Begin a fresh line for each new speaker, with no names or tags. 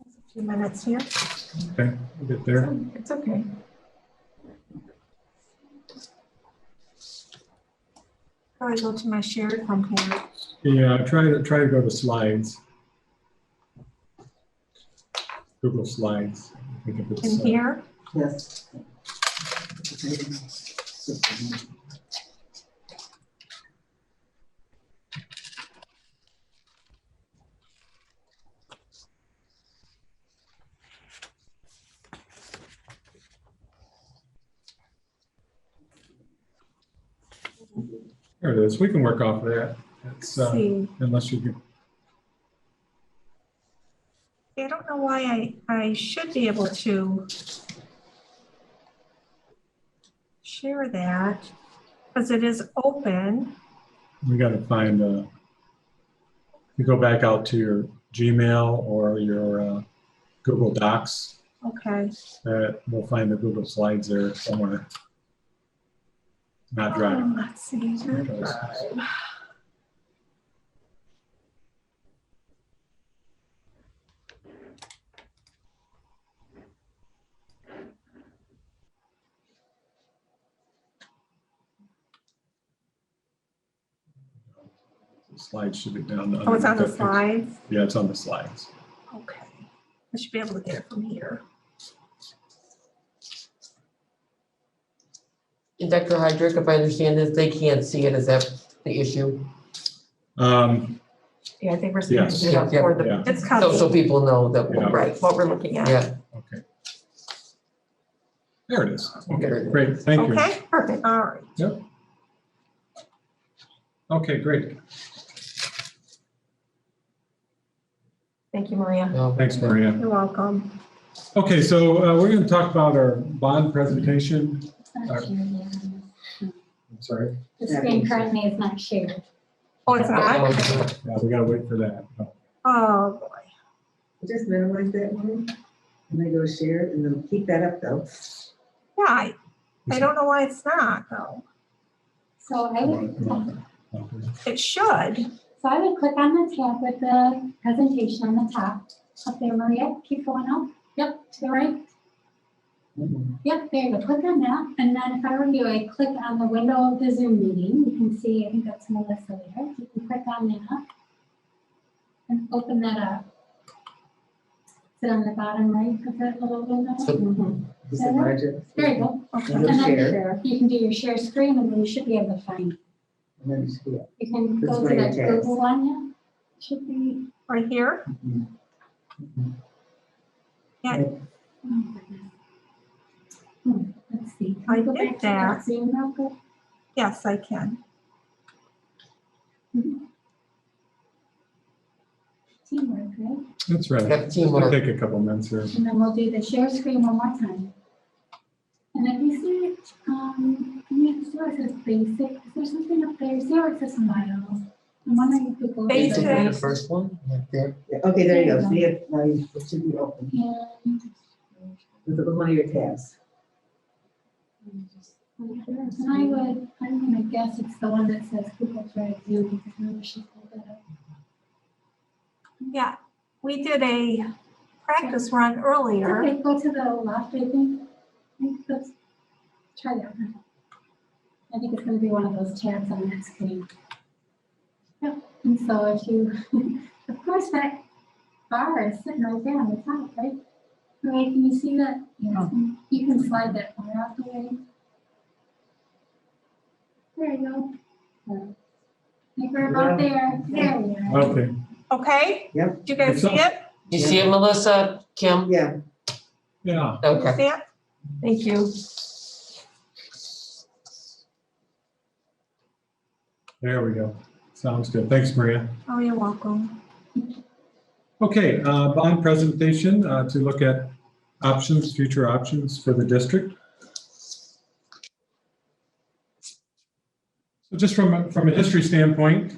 A few minutes here.
Okay, we'll get there.
It's okay. I go to my shared home page.
Yeah, uh, try to, try to go to slides. Google Slides. I think if it's,
In
uh,
here,
Yes.
There it is. We can work off of that. It's, uh,
see,
unless you can,
I don't know why I, I should be able to share that, because it is open.
we gotta find, uh, you go back out to your Gmail or your, uh, Google Docs.
Okay,
Uh, we'll find the Google Slides there somewhere. Not Drive.
Um, let's see.
Slides should be down.
Oh, it's on the
underneath that
slides?
picture. Yeah, it's on the slides.
Okay. I should be able to get it from here.
And Dr. Hydrick, if I understand this, they can't see it. Is that the issue?
Um,
Yeah, I think we're supposed to
Yes.
do that
Yeah,
for the,
yeah,
It's
So, so
copied.
people know that,
Yeah.
right, what we're looking at.
yeah,
okay. There it is.
There it
Okay,
is.
great, thank you.
Okay, perfect, all right.
Yep. Okay, great.
Thank you, Maria.
no.
Thanks, Maria.
You're welcome.
Okay, so uh, we're going to talk about our bond presentation.
Not shared, yeah.
I'm sorry,
The screen currently is not shared.
Oh, it's not?
Oh,
yeah, Uh, we got to wait for that.
Oh, boy.
Just minimize that one, and then go share, it, and then keep that up though.
yeah, I, I don't know why it's not though.
So I would,
Okay,
It should.
so I would click on the tab with the presentation on the top. Up there, Maria, keep going up. Yep, to the right. Yep, there you go. Click on that. And then if I were you, I click on the window of the Zoom meeting. You can see, I think that's Melissa there. You can click on that. And open that up. Is it on the bottom right of that little window?
So-
Mm-hmm.
Just enlarge it.
There you go.
Okay.
And
And
then
then
share,
share. You can do your share screen and then you should be able to find. it.
and then just, yeah.
You can
That's
go
where
to
it
that
is.
Google one, yeah. Should be.
Right here?
oh my goodness. Hmm, Let's see. Can
I
we go
did
back to that Zoom real quick?
Yes, I can.
Teamwork, right?
That's right.
Got
It'll
teamwork.
take a couple minutes here.
And then we'll do the share screen one more time. And if you see, um, next to it says basic, is there something up there? See where it says miles? I'm wondering if you go.
Is
Basic.
it The first one, right there.
Yeah, Okay, there you go, see it, now you, it should be open,
And.
look at one of your tabs.
And I would, I'm gonna guess it's the one that says Google Drive Zoom, because I should pull that up.
Yeah, we did a practice run earlier.
Okay, go to the left, I think. I think that's, try that one. I think it's gonna be one of those tabs on that screen. Yep, and so if you, of course, that bar is sitting right there on the top, right? Right, can you see that? Yes, and you can slide that bar out the way. There you go. Like we're about there, there we are.
Okay,
Okay?
Yep.
Do you guys see it?
You see it, Melissa, Kim?
Yeah,
yeah,
You
Okay.
See it?
Thank you.
there we go. Sounds good. Thanks, Maria.
Oh, you're welcome.
Okay, uh, bond presentation uh, to look at options, future options for the district. So just from, a- from a history standpoint,